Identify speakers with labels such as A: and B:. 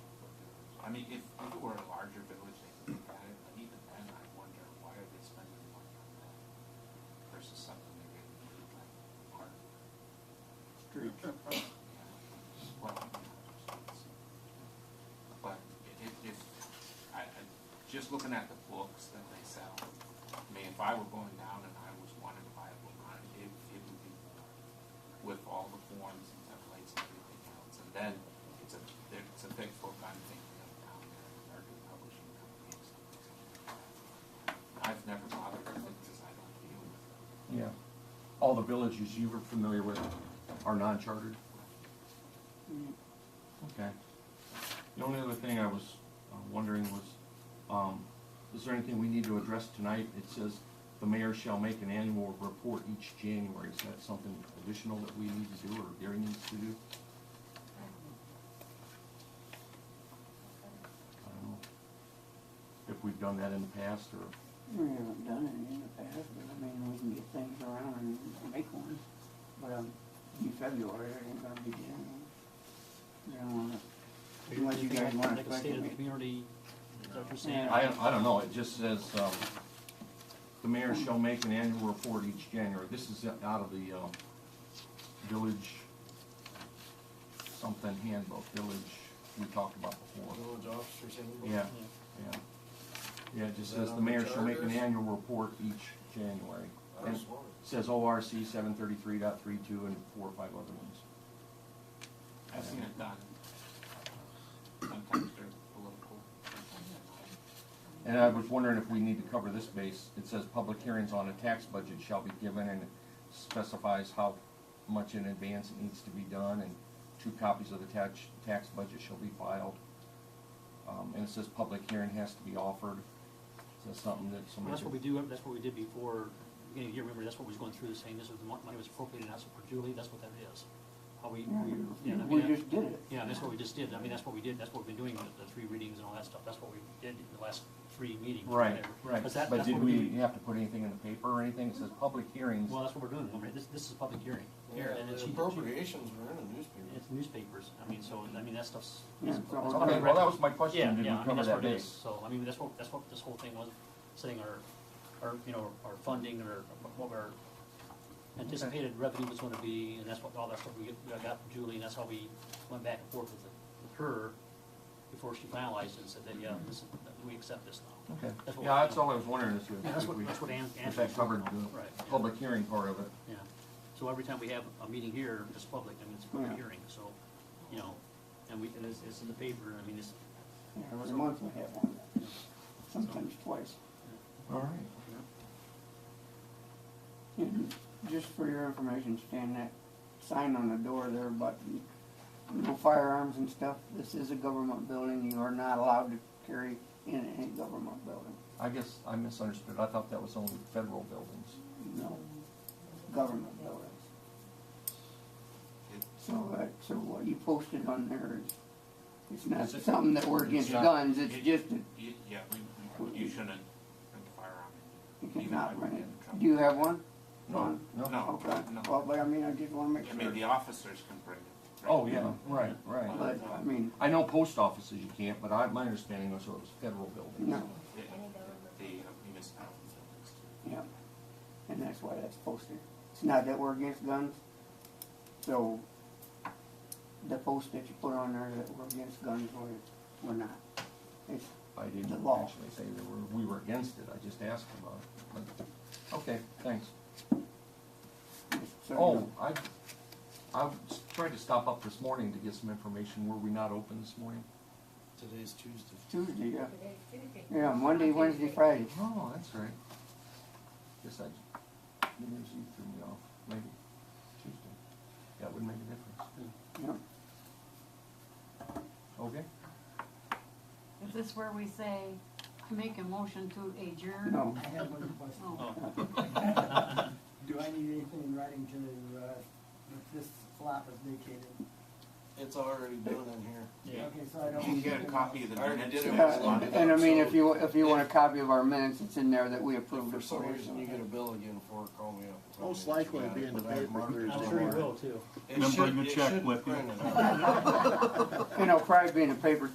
A: I mean, if if it were a larger village, they could look at it, but even then, I wonder, why are they spending the money on that versus something they're getting rid of, like park? Street. Well, but it, it, I, I, just looking at the books that they sell, I mean, if I were going down and I was wanting to buy a book on it, it, it would be more with all the forms and templates and everything else. And then it's a, it's a thick book, I'm thinking of down there, American Publishing Company or something. I've never bothered with it because I don't deal with it.
B: Yeah. All the villages you were familiar with are non-chartered? Okay. The only other thing I was uh, wondering was, um, is there anything we need to address tonight? It says the mayor shall make an annual report each January. Is that something additional that we need to do or Gary needs to do? I don't know. If we've done that in the past or,
C: We haven't done it in the past, but I mean, we can get things around and make one. But, um, in February, it ain't gonna be January. You don't wanna, unless you guys wanna
D: Like a
C: special
D: state of the
C: meeting.
D: community, is that what you're saying?
C: Yeah.
B: I, I don't know, it just says, um, the mayor shall make an annual report each January. This is out of the, um, village something handbook, village we talked about before.
E: Village officers handbook?
B: Yeah, yeah. Yeah, it just
E: Is that
B: says the
E: on the
B: mayor shall make an
E: charters?
B: annual report each January.
E: I
B: And
E: was
B: it
E: wondering.
B: says ORC seven thirty-three dot three-two and four or five other ones.
A: I've seen it done. Sometimes they're political, sometimes they're not.
B: And I was wondering if we need to cover this base. It says public hearings on a tax budget shall be given and it specifies how much in advance it needs to be done and two copies of the tax, tax budget shall be filed. Um, and it says public hearing has to be offered. Is that something that
D: Well,
B: somebody?
D: That's what we
B: could-
D: do, that's what we did before, you know, you remember, that's what we was going through, the same, this was, the mon- money was appropriated, not so perpetually, that's what that is. How we, we, yeah, I mean,
C: We
D: that-
C: just did it.
D: yeah, that's what we just did, I mean, that's what we did, that's what we've been doing, the, the three readings and all that stuff, that's what we did in the last three meetings.
B: Right,
D: whatever.
B: right.
D: 'Cause that-
B: But
D: that's
B: did
D: what we're
B: we
D: doing.
B: have to put anything in the paper or anything? It says public hearings.
D: Well, that's what we're doing, I mean, this, this is a public hearing.
E: Yeah,
D: And it's-
E: the appropriations were in the newspaper.
D: It's newspapers, I mean, so, I mean, that stuff's.
C: Yeah,
D: that's-
C: so-
D: that's
B: Okay,
D: already
B: well, that
D: written.
B: was my
D: Yeah,
B: question. Did
D: yeah,
B: we
D: I mean,
B: cover
D: that's
B: that
D: what it is,
B: base?
D: so, I mean, that's what, that's what this whole thing was, saying our, our, you know, our funding or what our anticipated revenue was gonna be, and that's what, all that stuff we get- we got from Julie, and that's how we went back and forth with the- with her before she finalized and said that, yeah, this, we accept this now.
B: Okay,
D: That's what
B: yeah,
D: we-
B: that's all I was wondering is
D: Yeah, that's
B: if
D: what-
B: we,
D: that's what Ann- Ann
B: if that
D: was
B: covered
D: talking
B: the
D: about. Right, yeah.
B: public hearing part of it.
D: Yeah, so every time we have a meeting here, it's public, I mean, it's a public
C: Yeah.
D: hearing, so, you know, and we, and it's, it's in the paper, I mean, it's,
C: Yeah, Every month we have one, sometimes twice.
B: All right.
C: And just for your information, Stan, that sign on the door there, but no firearms and stuff, this is a government building, you are not allowed to carry in any government building.
B: I guess I misunderstood. I thought that was only federal buildings.
C: No, government buildings. So, that, so what you posted on there is, it's not
B: Is it-
C: something that we're
B: it's
C: against
B: not-
C: guns, it's just that
A: Y- Yeah, we, we- you shouldn't bring a firearm in.
C: you
A: Even if I
C: cannot
A: would
C: rent
A: get in
C: it.
A: trouble.
C: Do you have one?
B: No, no.
A: No.
C: Okay, well, but I mean, I just wanna make
A: I mean, the
C: sure,
A: officers can bring it. right?
B: Oh, yeah, right, right.
C: but, I mean,
B: I know post offices you can't, but I, my understanding was it was federal buildings.
C: no,
A: The, the uh, municipality buildings.
C: yeah, and that's why that's posted. It's not that we're against guns, so the post that you put on there that we're against guns, we're, we're not. It's,
B: I didn't
C: The law.
B: actually say that we're, we were against it. I just asked about it. But- Okay, thanks.
C: it's, so, you
B: Oh,
C: know,
B: I, I was trying to stop up this morning to get some information. Were we not open this morning?
E: Today's Tuesday.
C: Tuesday, yeah, yeah, Monday, Wednesday, Friday.
B: Oh, that's right. Guess I, New Year's Eve threw me off, maybe Tuesday. That would make a difference.
C: Yeah.
B: Okay?
F: Is this where we say, I make a motion to adjourn?
C: No,
G: I have one question.
F: Oh,
G: Do I need anything in writing to, uh, if this flop is vacated?
E: It's already done in here.
D: yeah.
G: Okay, so I don't.
A: You can get a copy of the
E: I already
A: minutes.
E: did it.
A: and
C: yeah,
A: it's
C: and-
A: on
E: Yeah.
A: it.
C: and I mean, if you, if you want a copy of our minutes, it's in there that we
E: If
C: approved.
E: for
C: it
E: some
C: you.
E: reason you get a bill again for it, call me up. and tell me
H: Most
E: that you
H: likely
E: got
H: it'll be
E: it,
H: in the
E: but I have
H: paper
E: marked it
D: I'm
H: Thursday
E: on
D: sure you
E: mark.
D: will too.
E: It
H: Then
E: should-
H: bring a
E: it
H: check
E: should
H: with you.
E: print it out.
C: You know, probably be in the paper